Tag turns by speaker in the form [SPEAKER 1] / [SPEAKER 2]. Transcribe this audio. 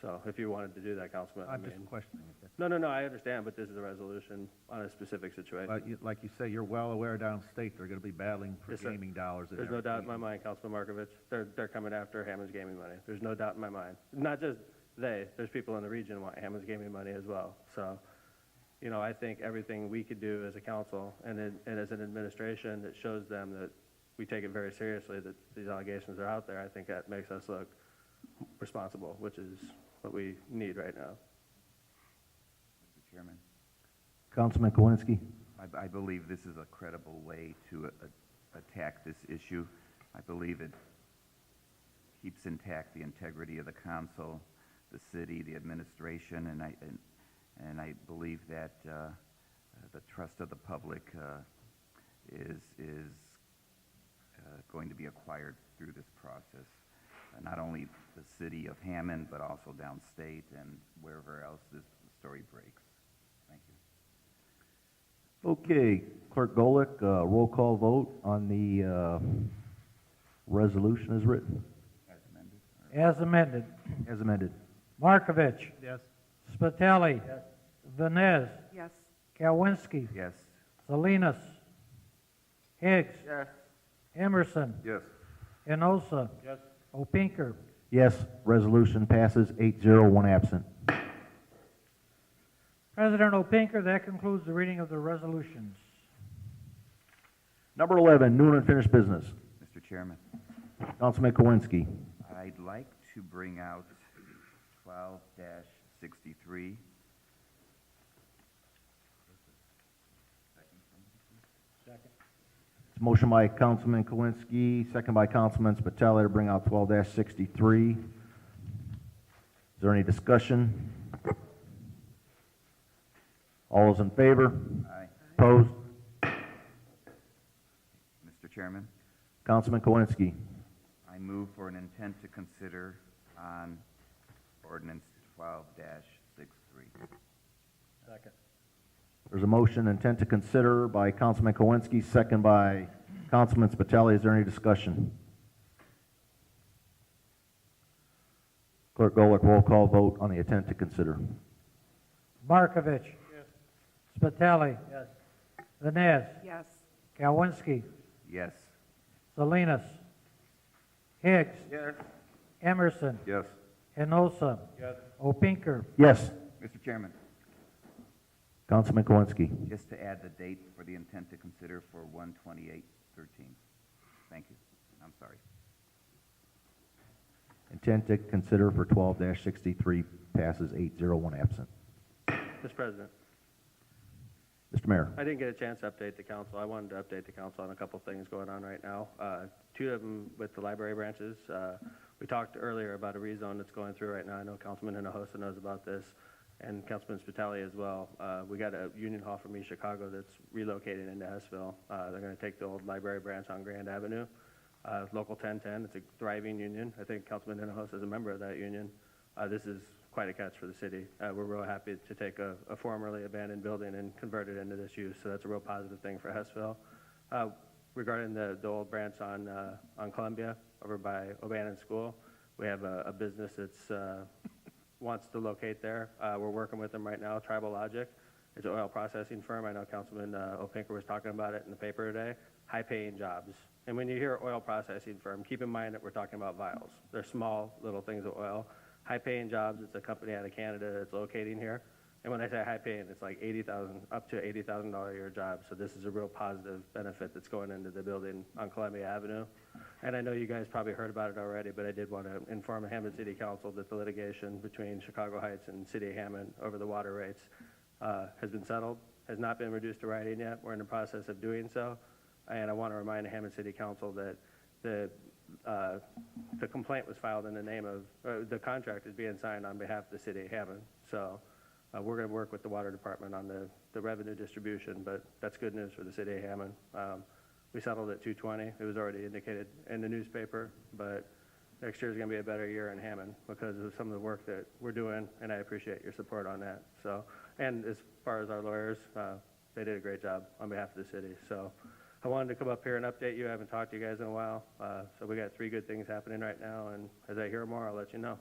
[SPEAKER 1] So if you wanted to do that, Councilman, I
[SPEAKER 2] I'm just
[SPEAKER 1] mean,
[SPEAKER 2] questioning it. that's-
[SPEAKER 1] no, no, no, I understand, but this is a resolution on a specific situation.
[SPEAKER 2] But you, like you say, you're well aware downstate, they're gonna be battling for
[SPEAKER 1] Yes, sir.
[SPEAKER 2] gaming dollars and
[SPEAKER 1] There's no doubt in my
[SPEAKER 2] everything.
[SPEAKER 1] mind, Councilman Markovich, they're, they're coming after Hammond's gaming money. There's no doubt in my mind. Not just they, there's people in the region who want Hammond's gaming money as well. So, you know, I think everything we could do as a council and, in- and as an administration that shows them that we take it very seriously, that these allegations are out there, I think that makes us look responsible, which is what we need right now.
[SPEAKER 3] Mr. Chairman,
[SPEAKER 2] Councilman Kowinski?
[SPEAKER 3] I, I believe this is a credible way to a- attack this issue. I believe it keeps intact the integrity of the council, the city, the administration, and I, and, and I believe that, uh, the trust of the public, uh, is, is, uh, going to be acquired through this process. Uh, Not only the city of Hammond, but also downstate and wherever else this story breaks. Thank you.
[SPEAKER 4] Okay, Clerk Golick, uh, roll call vote on the, uh, resolution as written,
[SPEAKER 3] As amended? or-
[SPEAKER 5] As amended.
[SPEAKER 4] as amended.
[SPEAKER 5] Markovich.
[SPEAKER 2] Yes.
[SPEAKER 5] Spitali. Vines.
[SPEAKER 6] yes,
[SPEAKER 5] Kalwinski.
[SPEAKER 3] Yes.
[SPEAKER 5] Salinas. Higgs.
[SPEAKER 3] Yes.
[SPEAKER 5] Emerson.
[SPEAKER 3] Yes.
[SPEAKER 5] Enosa. Opinker.
[SPEAKER 4] Yes, resolution passes eight zero, one absent.
[SPEAKER 5] President Opinker, that concludes the reading of the resolutions.
[SPEAKER 4] Number eleven, new and unfinished business.
[SPEAKER 3] Mr. Chairman,
[SPEAKER 4] Councilman Kowinski.
[SPEAKER 3] I'd like to bring out twelve sixty-three.
[SPEAKER 4] It's a motion by Councilman Kowinski, second by Councilman Spitali to bring out twelve sixty-three. Is there any discussion? All those in favor?
[SPEAKER 3] Aye.
[SPEAKER 4] Opposed?
[SPEAKER 3] Mr. Chairman,
[SPEAKER 4] Councilman Kowinski.
[SPEAKER 3] I move for an intent to consider on ordinance twelve 63
[SPEAKER 4] There's a motion intent to consider by Councilman Kowinski, second by Councilman Spitali. Is there any discussion? Clerk Golick, roll call vote on the intent to consider.
[SPEAKER 5] Markovich. Yes. Spitali. Yes. Vines.
[SPEAKER 6] yes,
[SPEAKER 5] Kalwinski.
[SPEAKER 3] Yes.
[SPEAKER 5] Salinas. Higgs.
[SPEAKER 3] Yes.
[SPEAKER 5] Emerson.
[SPEAKER 3] Yes.
[SPEAKER 5] Enosa. Opinker.
[SPEAKER 4] Yes,
[SPEAKER 3] Mr. Chairman,
[SPEAKER 4] Councilman Kowinski.
[SPEAKER 3] just to add the date for the intent to consider for one twenty-eight thirteen. Thank you. I'm sorry.
[SPEAKER 4] Intent to consider for twelve sixty-three passes eight zero, one absent.
[SPEAKER 1] Mr. President.
[SPEAKER 4] Mr. Mayor.
[SPEAKER 1] I didn't get a chance to update the council. I wanted to update the council on a couple things going on right now. Uh, Two of them with the library branches. Uh, We talked earlier about a rezone that's going through right now. I know Councilman Hinojosa knows about this, and Councilman Spitali as well. Uh, We got a union hall from East Chicago that's relocating into Hessville. Uh, They're going to take the old library branch on Grand Avenue. Uh, Local 1010, it's a thriving union. I think Councilman Hinojosa is a member of that union. Uh, This is quite a catch for the city. Uh, We're real happy to take a a formerly abandoned building and convert it into this use, so that's a real positive thing for Hessville. Uh, Regarding the the old branch on uh, on Columbia over by Obannon School, we have a a business that's uh, wants to locate there. Uh, We're working with them right now, Tribal Logic. It's an oil processing firm. I know Councilman uh, Opinker was talking about it in the paper today. High-paying jobs. And when you hear oil processing firm, keep in mind that we're talking about vials. They're small, little things of oil. High-paying jobs, it's a company out of Canada that's locating here. And when I say high-paying, it's like 80,000, up to $80,000 a year job. So this is a real positive benefit that's going into the building on Columbia Avenue. And I know you guys probably heard about it already, but I did want to inform Hammond City Council that the litigation between Chicago Heights and City of Hammond over the water rates uh, has been settled, has not been reduced to writing yet. We're in the process of doing so. And I want to remind Hammond City Council that the, uh, the complaint was filed in the name of, uh, the contract is being signed on behalf of the city of Hammond. So uh, we're going to work with the water department on the, the revenue distribution, but that's good news for the city of Hammond. Um, We settled at 220. It was already indicated in the newspaper, but next year's going to be a better year in Hammond because of some of the work that we're doing, and I appreciate your support on that. So, and as far as our lawyers, uh, they did a great job on behalf of the city. So I wanted to come up here and update you. I haven't talked to you guys in a while. Uh, So we got three good things happening right now, and as I hear more, I'll let you know.